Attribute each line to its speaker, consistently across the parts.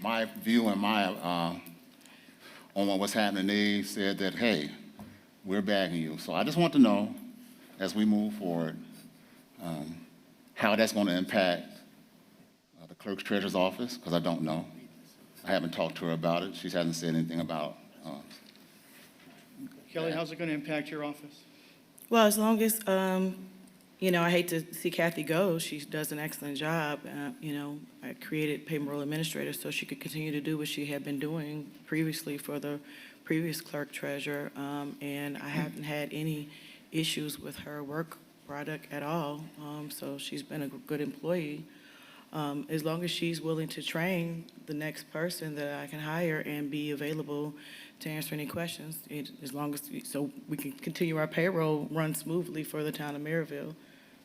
Speaker 1: my view and my, uh, on what's happening, they said that, hey, we're backing you. So I just want to know, as we move forward, um, how that's going to impact uh, the clerk's treasurer's office, because I don't know. I haven't talked to her about it. She hasn't said anything about, uh,
Speaker 2: Kelly, how's it going to impact your office?
Speaker 3: Well, as long as, um, you know, I hate to see Kathy go. She does an excellent job. Uh, You know, I created payroll administrator so she could continue to do what she had been doing previously for the previous clerk treasurer. Um, And I haven't had any issues with her work product at all. Um, So she's been a good employee. Um, As long as she's willing to train the next person that I can hire and be available to answer any questions, it- as long as, so we can continue our payroll run smoothly for the town of Maryville.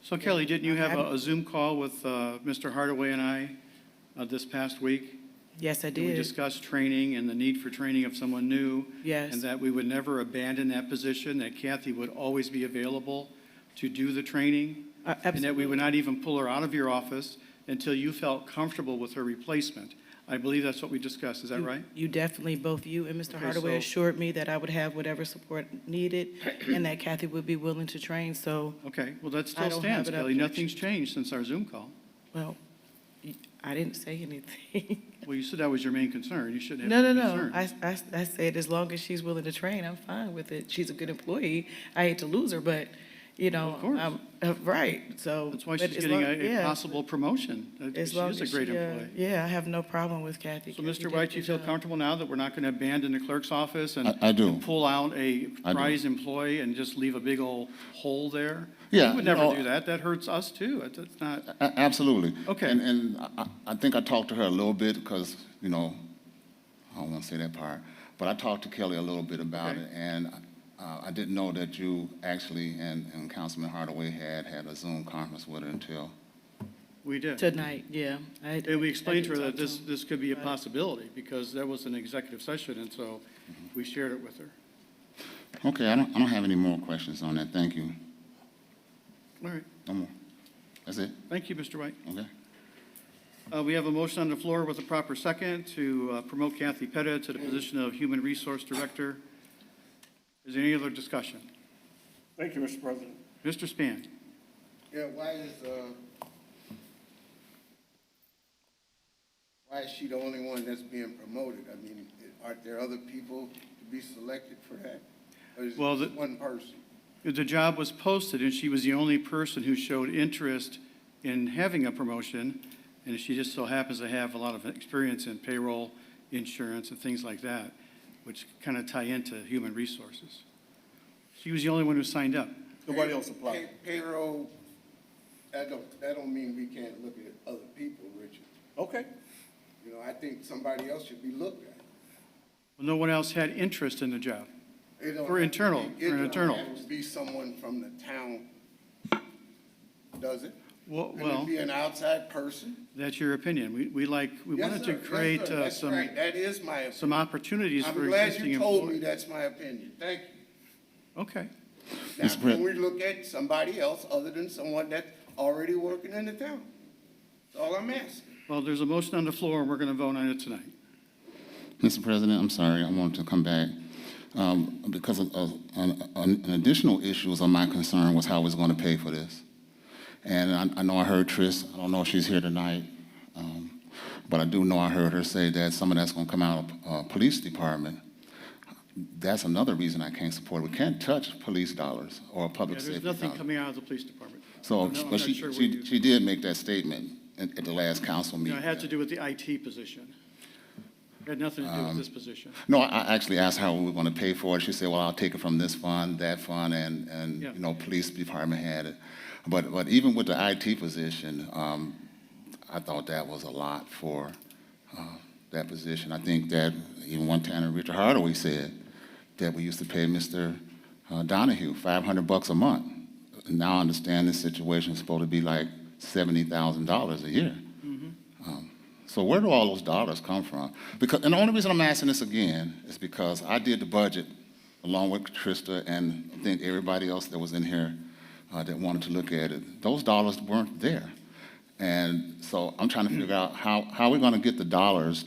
Speaker 2: So Kelly, didn't you have a a Zoom call with uh, Mr. Hardaway and I uh, this past week?
Speaker 3: Yes, I
Speaker 2: And We
Speaker 3: did.
Speaker 2: discussed training and the need for training of someone new.
Speaker 3: Yes.
Speaker 2: And that we would never abandon that position, that Kathy would always be available to do the training.
Speaker 3: Uh,
Speaker 2: And that we
Speaker 3: absolutely.
Speaker 2: would not even pull her out of your office until you felt comfortable with her replacement. I believe that's what we discussed, is that
Speaker 3: You-
Speaker 2: right?
Speaker 3: You definitely, both you and Mr.
Speaker 2: Okay,
Speaker 3: Hardaway
Speaker 2: so-
Speaker 3: assured me that I would have whatever support needed and that Kathy would be willing to train, so,
Speaker 2: Okay, well, that
Speaker 3: I
Speaker 2: still
Speaker 3: don't
Speaker 2: stands,
Speaker 3: have it up
Speaker 2: Kelly.
Speaker 3: there.
Speaker 2: Nothing's changed since our Zoom call.
Speaker 3: well, y- I didn't say anything.
Speaker 2: Well, you said that was your main concern. You shouldn't
Speaker 3: No,
Speaker 2: have
Speaker 3: no,
Speaker 2: any
Speaker 3: no.
Speaker 2: concern.
Speaker 3: I, I, I said, as long as she's willing to train, I'm fine with it. She's a good employee. I hate to lose her, but, you know,
Speaker 2: Of course.
Speaker 3: I'm, uh, right, so.
Speaker 2: That's why
Speaker 3: but
Speaker 2: she's
Speaker 3: as
Speaker 2: getting a
Speaker 3: long-
Speaker 2: a
Speaker 3: yeah,
Speaker 2: possible promotion. Uh, She
Speaker 3: as long
Speaker 2: is a
Speaker 3: as
Speaker 2: great
Speaker 3: she, uh,
Speaker 2: employee.
Speaker 3: Yeah, I have no problem with Kathy.
Speaker 2: So,
Speaker 3: Kathy
Speaker 2: Mr.
Speaker 3: did a
Speaker 2: White, you
Speaker 3: good
Speaker 2: feel
Speaker 3: job.
Speaker 2: comfortable now that we're not going to abandon the clerk's office and
Speaker 1: I- I do.
Speaker 2: and pull out a
Speaker 1: I do.
Speaker 2: prize employee and just leave a big old hole there?
Speaker 1: Yeah,
Speaker 2: We would never
Speaker 1: no.
Speaker 2: do that. That hurts us, too. It's- It's not,
Speaker 1: A- Absolutely.
Speaker 2: Okay.
Speaker 1: And, and I- I, I think I talked to her a little bit because, you know, I don't want to say that part, but I talked to Kelly a little bit about
Speaker 2: Okay.
Speaker 1: it, and uh, I didn't know that you actually and, and Councilman Hardaway had had a Zoom conference with her until.
Speaker 2: we did.
Speaker 3: Tonight, yeah. I-
Speaker 2: And we
Speaker 3: I
Speaker 2: explained
Speaker 3: did
Speaker 2: to her
Speaker 3: talk
Speaker 2: that this,
Speaker 3: him.
Speaker 2: this could be a
Speaker 3: about it.
Speaker 2: possibility because there was an executive session, and so
Speaker 1: Mm-hmm.
Speaker 2: we shared it with her.
Speaker 1: Okay, I don't, I don't have any more questions on that. Thank you.
Speaker 2: All right.
Speaker 1: No more. That's it?
Speaker 2: Thank you, Mr. White.
Speaker 1: Okay.
Speaker 2: Uh, We have a motion on the floor with a proper second to uh, promote Kathy Pettit to the position of Human Resource Director. Is there any other discussion?
Speaker 4: Thank you, Mr. President.
Speaker 2: Mr. Span?
Speaker 4: Yeah, why is, uh, why is she the only one that's being promoted? I mean, aren't there other people to be selected for that? Or is it
Speaker 2: Well, the-
Speaker 4: just one person?
Speaker 2: The job was posted, and she was the only person who showed interest in having a promotion, and she just so happens to have a lot of experience in payroll, insurance, and things like that, which kind of tie into human resources. She was the only one who signed up.
Speaker 4: Nobody else applied. Payroll, that don't, that don't mean we can't look at other people, Richard. Okay. You know, I think somebody else should be looked at.
Speaker 2: No one else had interest in the job.
Speaker 4: It don't
Speaker 2: For
Speaker 4: have to
Speaker 2: internal,
Speaker 4: be-
Speaker 2: for an
Speaker 4: it don't have
Speaker 2: internal.
Speaker 4: to Be someone from the town, does it?
Speaker 2: Well,
Speaker 4: Can it
Speaker 2: well,
Speaker 4: be an outside person?
Speaker 2: that's your opinion. We, we like, we
Speaker 4: Yes,
Speaker 2: wanted
Speaker 4: sir.
Speaker 2: to
Speaker 4: Yes,
Speaker 2: create
Speaker 4: sir.
Speaker 2: uh,
Speaker 4: That's
Speaker 2: some,
Speaker 4: right. That is my, opinion.
Speaker 2: some opportunities for
Speaker 4: I'm glad
Speaker 2: existing
Speaker 4: you told me
Speaker 2: employees.
Speaker 4: that's my opinion. Thank you.
Speaker 2: Okay.
Speaker 4: Now,
Speaker 1: Mr. Pres-
Speaker 4: can we look at somebody else other than someone that's already working in the town? That's all I'm asking.
Speaker 2: Well, there's a motion on the floor, and we're going to vote on it tonight.
Speaker 1: Mr. President, I'm sorry, I wanted to come back. Um, because of, of, an, an additional issues of my concern was how I was gonna pay for this. And I, I know I heard Tris, I don't know if she's here tonight, um, but I do know I heard her say that some of that's gonna come out of, uh, police department. That's another reason I can't support it. We can't touch police dollars or
Speaker 2: Yeah,
Speaker 1: public safety
Speaker 2: There's
Speaker 1: dollars.
Speaker 2: nothing coming out of the police department.
Speaker 1: So,
Speaker 2: No, I'm
Speaker 1: but
Speaker 2: not
Speaker 1: she,
Speaker 2: sure where
Speaker 1: she,
Speaker 2: you-
Speaker 1: she did make that statement at, at the last council
Speaker 2: No,
Speaker 1: meeting.
Speaker 2: it had to do with the IT position. It had nothing to do with this position.
Speaker 1: No, I- I actually asked how we were going to pay for it. She said, well, I'll take it from this fund, that fund, and, and,
Speaker 2: Yeah.
Speaker 1: you know, police department had it. But, but even with the IT position, um, I thought that was a lot for, uh, that position. I think that even one time, Richard Hardaway said that we used to pay Mr. uh, Donahue five hundred bucks a month. Now I understand this situation is supposed to be like seventy thousand dollars a year. So where do all those dollars come from? Because, and the only reason I'm asking this again is because I did the budget along with Trista and I think everybody else that was in here uh, that wanted to look at it. Those dollars weren't there. And so I'm trying to figure out how, how we're going to get the dollars